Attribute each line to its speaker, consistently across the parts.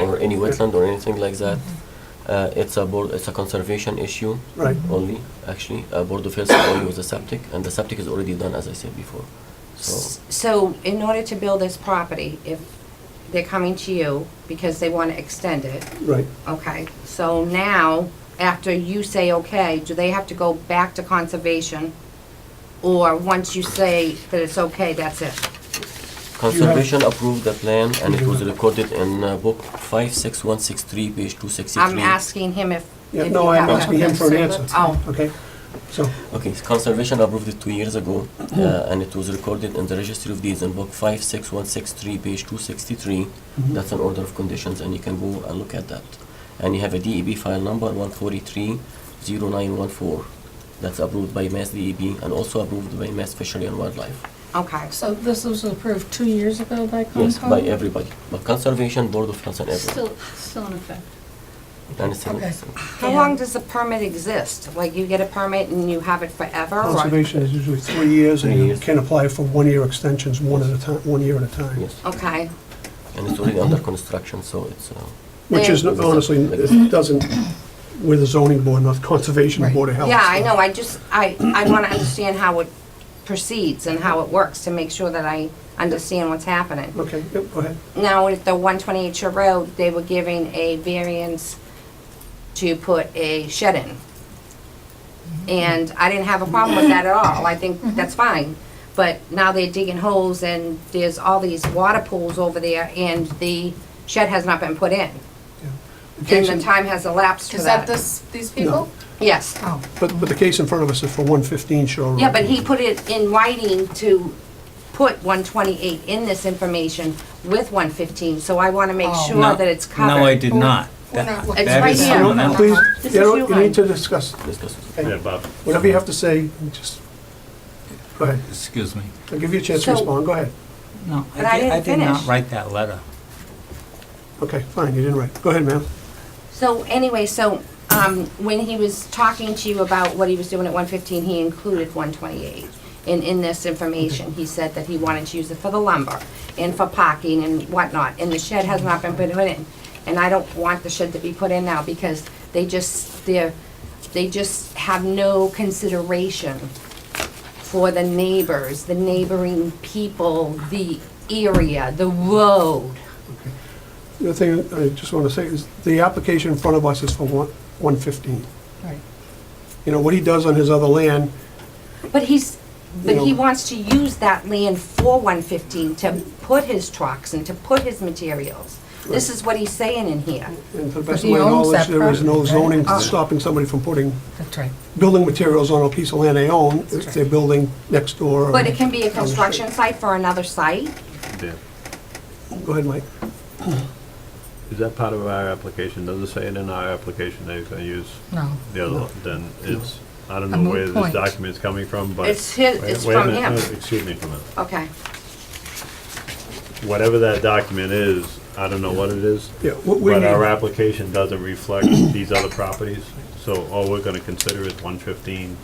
Speaker 1: any wetland or anything like that. Uh, it's a board, it's a conservation issue
Speaker 2: Right.
Speaker 1: only, actually. Uh, Board of Health only with the septic, and the septic is already done, as I said before. So,
Speaker 3: So in order to build this property, if they're coming to you because they want to extend it,
Speaker 2: Right.
Speaker 3: okay? So now, after you say okay, do they have to go back to conservation? Or once you say that it's okay, that's it?
Speaker 1: conservation approved the plan, and it
Speaker 2: You
Speaker 1: was
Speaker 2: have-
Speaker 1: recorded in uh, book five six one six three, page two
Speaker 3: I'm
Speaker 1: sixty-three.
Speaker 3: asking him if.
Speaker 2: Yeah,
Speaker 3: if
Speaker 2: no,
Speaker 3: you
Speaker 2: I'm
Speaker 3: have that.
Speaker 2: asking him for an answer.
Speaker 3: Oh,
Speaker 2: Okay? So,
Speaker 1: Okay, so conservation approved it two years ago, uh, and it was recorded in the registry of deeds in book five six one six three, page two sixty-three. That's an order of conditions, and you can go and look at that. And you have a DEB file number one forty-three zero nine one four. That's approved by Mass DEB and also approved by Mass Fishery and Wildlife.
Speaker 3: okay.
Speaker 4: So this was approved two years ago by Concom?
Speaker 1: Yes, by everybody, but Conservation Board of Health and everyone.
Speaker 4: Still, still in effect.
Speaker 1: And it's-
Speaker 4: Okay.
Speaker 3: How long does the permit exist? Like you get a permit and you have it forever? or-
Speaker 2: conservation is usually three years, and
Speaker 1: Three
Speaker 2: you
Speaker 1: years.
Speaker 2: can apply for one-year extensions, one at a time, one year at a time.
Speaker 1: Yes,
Speaker 3: Okay,
Speaker 1: and it's already under construction, so it's, uh,
Speaker 2: Which is
Speaker 1: Then-
Speaker 2: honestly, it doesn't, we're the zoning board, not conservation
Speaker 4: Right.
Speaker 2: board of health.
Speaker 3: yeah, I know, I just, I, I want to understand how it proceeds and how it works to make sure that I understand what's happening.
Speaker 2: Okay, yep, go ahead.
Speaker 3: Now, at the 128 Shore Road, they were giving a variance to put a shed in. And I didn't have a problem with that at all, I think
Speaker 4: Mm-hmm.
Speaker 3: that's fine. But now they're digging holes and there's all these water pools over there and the shed has not been put in. And the
Speaker 2: case-
Speaker 3: time has elapsed for
Speaker 4: Is that
Speaker 3: that.
Speaker 4: this, these people?
Speaker 3: Yes.
Speaker 4: Oh,
Speaker 2: But, but the case in front of us is for 115 Shore Road.
Speaker 3: Yeah, but he put it in writing to put 128 in this information with 115, so I want to make
Speaker 4: Oh.
Speaker 3: sure that it's covered.
Speaker 5: No, I did not.
Speaker 4: we're
Speaker 5: That-
Speaker 4: not
Speaker 3: It's
Speaker 4: looking.
Speaker 5: That
Speaker 3: right
Speaker 5: is
Speaker 3: here.
Speaker 5: someone
Speaker 2: No,
Speaker 5: else.
Speaker 2: Please,
Speaker 3: This
Speaker 2: you
Speaker 3: is
Speaker 2: don't, you need
Speaker 3: Huline.
Speaker 2: to discuss,
Speaker 1: discussed.
Speaker 6: Yeah, Bob.
Speaker 2: whatever you have to say, just, go ahead.
Speaker 5: Excuse me.
Speaker 2: I'll give you a chance to
Speaker 3: So-
Speaker 2: respond, go ahead.
Speaker 5: No,
Speaker 3: But I
Speaker 5: I did, I
Speaker 3: didn't
Speaker 5: did not
Speaker 3: finish.
Speaker 5: write that letter.
Speaker 2: Okay, fine, you didn't write. Go ahead, ma'am.
Speaker 3: So anyway, so um, when he was talking to you about what he was doing at 115, he included 128. And in this information, he said that he wanted to use it for the lumber and for parking and whatnot, and the shed has not been put in. And I don't want the shed to be put in now because they just, they're, they just have no consideration for the neighbors, the neighboring people, the area, the road.
Speaker 2: The thing I just want to say is, the application in front of us is for one 115.
Speaker 4: Right.
Speaker 2: You know, what he does on his other land,
Speaker 3: But he's, but he
Speaker 2: You know-
Speaker 3: wants to use that land for one fifteen to put his trucks and to put his materials. This is what he's saying in here.
Speaker 2: and to the best of
Speaker 4: he
Speaker 2: my
Speaker 4: owns
Speaker 2: knowledge,
Speaker 4: that
Speaker 2: there is no
Speaker 4: property, right?
Speaker 2: zoning
Speaker 4: Ah.
Speaker 2: stopping somebody from putting
Speaker 4: That's right.
Speaker 2: building materials on a piece of land they own, if they're building next door. or-
Speaker 3: But it can be a construction site for another site.
Speaker 6: Yeah.
Speaker 2: Go ahead, Mike.
Speaker 6: Is that part of our application? Does it say it in our application that he's gonna use
Speaker 4: No.
Speaker 6: the other, then it's, I don't
Speaker 4: A
Speaker 6: know where
Speaker 4: moot
Speaker 6: this
Speaker 4: point.
Speaker 6: document's coming from, but.
Speaker 3: It's his,
Speaker 6: Wait-
Speaker 3: it's
Speaker 6: wait a
Speaker 3: from
Speaker 6: minute,
Speaker 3: him.
Speaker 6: no, Excuse me for a minute.
Speaker 3: Okay.
Speaker 6: Whatever that document is, I don't know what it is.
Speaker 2: Yeah, what we
Speaker 6: But uh, our
Speaker 2: need,
Speaker 6: application doesn't reflect these other properties, so all we're gonna consider is one fifteen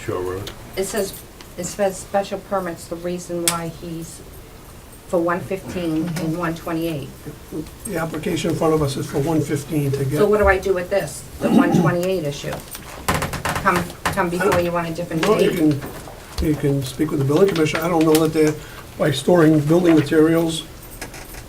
Speaker 6: Shore Road.
Speaker 3: It says, it says special permits, the reason why he's for one fifteen and one twenty-eight.
Speaker 2: the application in front of us is for 115 to get.
Speaker 3: So what do I do with this, the one twenty-eight issue? Come, come before you want a different
Speaker 2: Well, you
Speaker 3: date.
Speaker 2: can, you can speak with the building commissioner. I don't know that they're, by storing building materials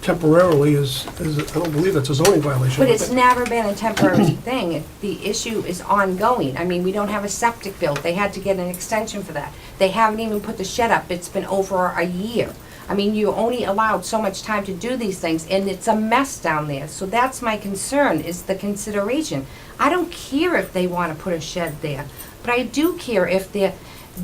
Speaker 2: temporarily is, is, I don't believe that's a zoning violation.
Speaker 3: But it's never been a temporary thing. It- The issue is ongoing. I mean, we don't have a septic built. They had to get an extension for that. They haven't even put the shed up. It's been over a year. I mean, you're only allowed so much time to do these things, and it's a mess down there. So that's my concern, is the consideration. I don't care if they want to put a shed there, but I do care if they're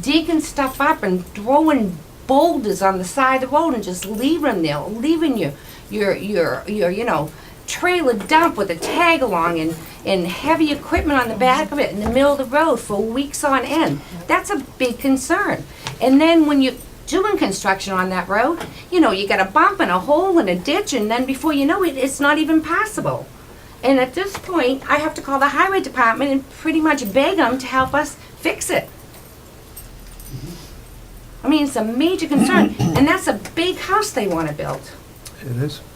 Speaker 3: digging stuff up and throwing boulders on the side of the road and just leaving them there, leaving your, your, your, your, you know, trailer dump with a tag along and, and heavy equipment on the back of it in the middle of the road for weeks on end. That's a big concern. And then when you're doing construction on that road, you know, you got a bump and a hole and a ditch, and then before you know it, it's not even possible. And at this point, I have to call the highway department and pretty much beg them to help us fix it. I mean, it's a major concern, and that's a big house they wanna build.
Speaker 2: It is.